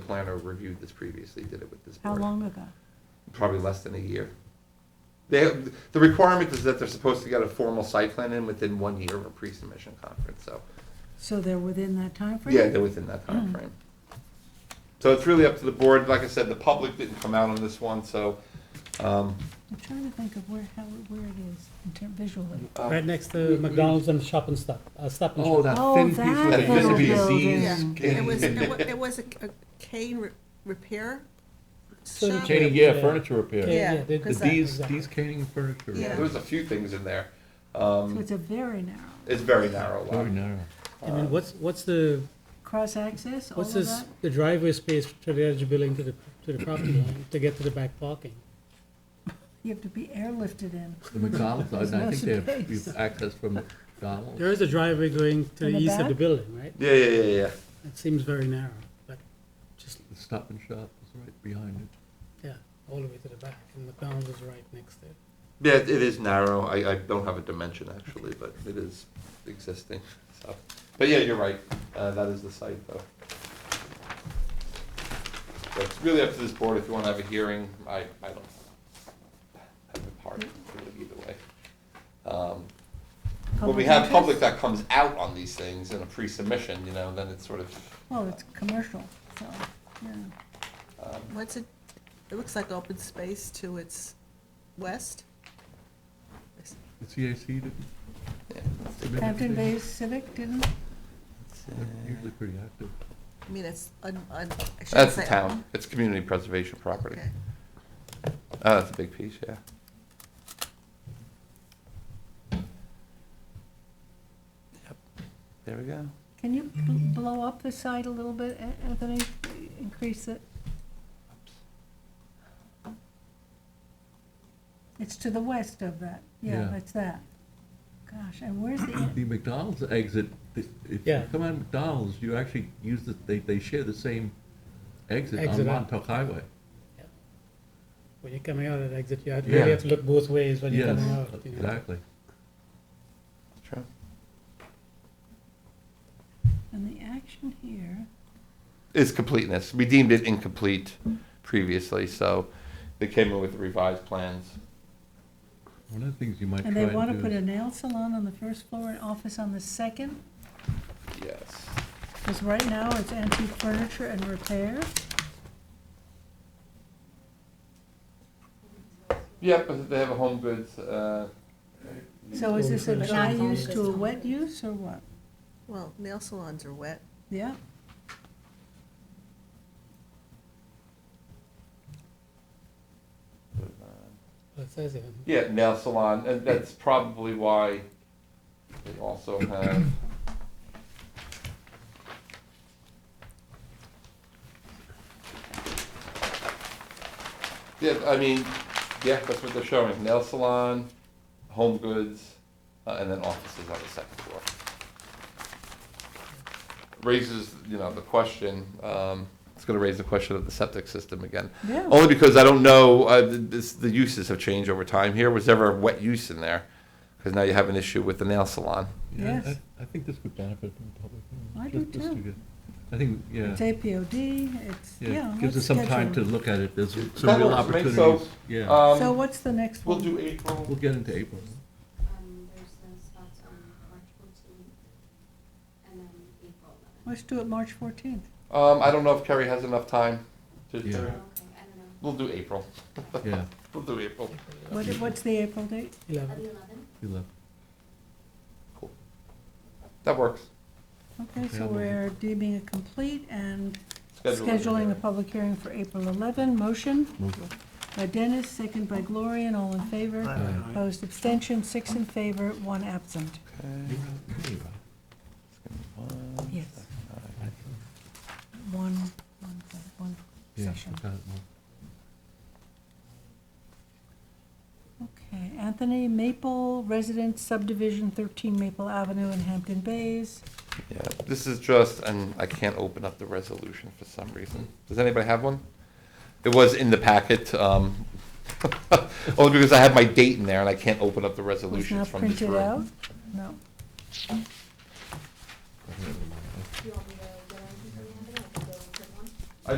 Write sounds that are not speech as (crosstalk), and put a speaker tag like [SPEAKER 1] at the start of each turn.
[SPEAKER 1] planner reviewed this previously, did it with this
[SPEAKER 2] How
[SPEAKER 1] board.
[SPEAKER 2] long ago?
[SPEAKER 1] Probably less than a year. They, the requirement is that they're supposed to get a formal site plan in within one year of a pre-submission conference, so,
[SPEAKER 2] So they're within that timeframe?
[SPEAKER 1] yeah, they're within
[SPEAKER 2] Hmm.
[SPEAKER 1] that time frame. So it's really up to the board, like I said, the public didn't come out on this one, so, um,
[SPEAKER 2] I'm trying to think of where, how, where it is in ter- visually.
[SPEAKER 3] Um,
[SPEAKER 4] Right next to McDonald's and Shop and Stop, uh, Stop and
[SPEAKER 3] Oh,
[SPEAKER 4] Shop.
[SPEAKER 3] that
[SPEAKER 2] Oh,
[SPEAKER 3] thin piece
[SPEAKER 2] that
[SPEAKER 3] where they
[SPEAKER 1] little
[SPEAKER 3] used to be a
[SPEAKER 2] building.
[SPEAKER 3] Z's.
[SPEAKER 2] Yeah.
[SPEAKER 3] candy.
[SPEAKER 5] There was, there wa- there was a a cane re- repair
[SPEAKER 4] So the
[SPEAKER 5] shop.
[SPEAKER 3] Candy, yeah, furniture repair.
[SPEAKER 5] Yeah,
[SPEAKER 4] they-
[SPEAKER 3] The
[SPEAKER 5] because
[SPEAKER 2] uh,
[SPEAKER 4] they-
[SPEAKER 3] D's,
[SPEAKER 4] exactly.
[SPEAKER 3] D's Canning Furniture.
[SPEAKER 5] Yeah.
[SPEAKER 1] there was a few things in there.
[SPEAKER 2] So
[SPEAKER 1] Um,
[SPEAKER 2] it's a very narrow.
[SPEAKER 1] it's very narrow
[SPEAKER 3] Very
[SPEAKER 1] lot.
[SPEAKER 3] narrow.
[SPEAKER 4] I mean, what's, what's the,
[SPEAKER 2] Cross-access, all
[SPEAKER 4] what's
[SPEAKER 2] of
[SPEAKER 4] this,
[SPEAKER 2] that?
[SPEAKER 4] the driveway space to the edge of building to the, to the property line to get to the back parking?
[SPEAKER 2] You have to be airlifted in.
[SPEAKER 3] The McDonald's, I I think they have
[SPEAKER 2] space.
[SPEAKER 3] you have access from McDonald's.
[SPEAKER 4] There is a driveway going to
[SPEAKER 2] In
[SPEAKER 4] the
[SPEAKER 2] the
[SPEAKER 4] east of the
[SPEAKER 2] back?
[SPEAKER 4] building, right?
[SPEAKER 1] Yeah, yeah, yeah, yeah.
[SPEAKER 4] It seems very narrow, but just,
[SPEAKER 3] The Stop and Shop is right behind it.
[SPEAKER 4] yeah, all the way to the back, and McDonald's is right next to it.
[SPEAKER 1] Yeah, it it is narrow. I, I don't have a dimension actually, but it is existing, so. But yeah, you're right. Uh, that is the site though. So it's really up to this board if you want to have a hearing. I, I don't have a part to it either way. Um, When we
[SPEAKER 2] Public
[SPEAKER 1] have
[SPEAKER 2] interest?
[SPEAKER 1] public that comes out on these things in a pre-submission, you know, then it's sort of,
[SPEAKER 2] Well, it's commercial, so, yeah.
[SPEAKER 1] um,
[SPEAKER 5] What's it, it looks like open space to its west.
[SPEAKER 3] The CAC didn't.
[SPEAKER 1] yeah.
[SPEAKER 3] submit
[SPEAKER 2] Hampton
[SPEAKER 3] anything?
[SPEAKER 2] Bays Civic didn't?
[SPEAKER 3] They're Usually pretty active.
[SPEAKER 5] I mean, it's, un- un- I shouldn't
[SPEAKER 1] That's the
[SPEAKER 5] say.
[SPEAKER 1] town. It's community preservation property.
[SPEAKER 5] Okay.
[SPEAKER 1] Oh, that's a big piece, yeah. Yep, there we go.
[SPEAKER 2] Can you bl- blow up the site a little bit, A- Anthony? Increase it? It's to the west of that. Yeah,
[SPEAKER 3] Yeah.
[SPEAKER 2] that's that. Gosh, and where's the,
[SPEAKER 3] The McDonald's exit, th- if you
[SPEAKER 4] Yeah.
[SPEAKER 3] come out of McDonald's, you actually use the, they, they share the same exit on
[SPEAKER 4] Exit out.
[SPEAKER 3] Montauk Highway.
[SPEAKER 4] When you're coming out at exit, you have-
[SPEAKER 3] Yeah.
[SPEAKER 4] really have to look both ways when you're
[SPEAKER 3] Yes,
[SPEAKER 4] coming out, you know?
[SPEAKER 3] exactly.
[SPEAKER 1] True.
[SPEAKER 2] and the action here?
[SPEAKER 1] It's completeness. We deemed it incomplete previously, so they came in with revised plans.
[SPEAKER 3] One of the things you might try
[SPEAKER 2] And
[SPEAKER 3] and do.
[SPEAKER 2] they want to put a nail salon on the first floor and office on the second?
[SPEAKER 1] Yes.
[SPEAKER 2] Because right now it's antique furniture and repair.
[SPEAKER 1] Yep, but they have a home goods, uh,
[SPEAKER 2] So is this a
[SPEAKER 4] But
[SPEAKER 2] dry
[SPEAKER 6] not home
[SPEAKER 2] use to a
[SPEAKER 6] goods.
[SPEAKER 2] wet use or what?
[SPEAKER 5] Well, nail salons are wet.
[SPEAKER 2] Yeah,
[SPEAKER 4] Well, It says here.
[SPEAKER 1] yeah, nail salon, and that's probably why they also have. Yeah, I mean, yeah, that's what they're showing, nail salon, home goods, uh, and then offices on the second floor. Raises, you know, the question, um, it's gonna raise the question of the septic system again.
[SPEAKER 2] yeah.
[SPEAKER 3] Oh,
[SPEAKER 1] Only because I don't know, uh, th- this, the uses have changed over time here. Was ever a wet use in there? Because now you have an issue with the nail salon.
[SPEAKER 3] Yeah,
[SPEAKER 2] Yes.
[SPEAKER 3] I, I think this would benefit the public.
[SPEAKER 2] I
[SPEAKER 3] Just-
[SPEAKER 2] do
[SPEAKER 3] just to
[SPEAKER 2] too.
[SPEAKER 3] get- I think, yeah,
[SPEAKER 2] It's APOD, it's, yeah.
[SPEAKER 3] yeah,
[SPEAKER 2] let's
[SPEAKER 3] gives us some time to
[SPEAKER 2] schedule.
[SPEAKER 3] look at it, there's
[SPEAKER 1] That
[SPEAKER 3] some real
[SPEAKER 1] works for me,
[SPEAKER 3] opportunities.
[SPEAKER 1] so,
[SPEAKER 3] Yeah,
[SPEAKER 2] So
[SPEAKER 1] Um,
[SPEAKER 2] what's the next
[SPEAKER 1] we'll
[SPEAKER 2] one?
[SPEAKER 1] do April.
[SPEAKER 3] we'll get into April.
[SPEAKER 6] Um, there's no spots on March fourteenth, and then April eleventh.
[SPEAKER 2] Let's do it March fourteenth.
[SPEAKER 1] Um, I don't know if Kerry has enough time to,
[SPEAKER 3] Yeah.
[SPEAKER 1] to-
[SPEAKER 6] Okay, I don't know,
[SPEAKER 1] we'll do April.
[SPEAKER 3] Yeah,
[SPEAKER 1] We'll do April.
[SPEAKER 2] What, what's the April date?
[SPEAKER 4] Eleven.
[SPEAKER 6] the eleventh,
[SPEAKER 3] we love.
[SPEAKER 1] That works.
[SPEAKER 2] Okay, so
[SPEAKER 3] Yeah, well-
[SPEAKER 2] we're deeming it complete and
[SPEAKER 1] Schedule it.
[SPEAKER 2] scheduling a public hearing for April eleven. Motion
[SPEAKER 3] Move.
[SPEAKER 2] by Dennis, second by Gloria, and all in favor.
[SPEAKER 3] Aye.
[SPEAKER 2] Opposed, abstention, six in favor, one absent.
[SPEAKER 1] Okay.
[SPEAKER 3] You're out, you're out.
[SPEAKER 1] One,
[SPEAKER 2] Yes,
[SPEAKER 3] I-
[SPEAKER 2] one, one, thing, one
[SPEAKER 3] Yeah,
[SPEAKER 2] session.
[SPEAKER 3] I got it. Well,
[SPEAKER 2] Okay, Anthony Maple, resident subdivision, 13 Maple Avenue in Hampton Bays.
[SPEAKER 1] Yeah, this is just, and I can't open up the resolution for some reason. Does anybody have one? It was in the packet, um, (laughs) only because I have my date in there and I can't open up the
[SPEAKER 2] Was
[SPEAKER 1] resolutions
[SPEAKER 2] not
[SPEAKER 1] from this room.
[SPEAKER 2] printed out? No.
[SPEAKER 3] I don't remember.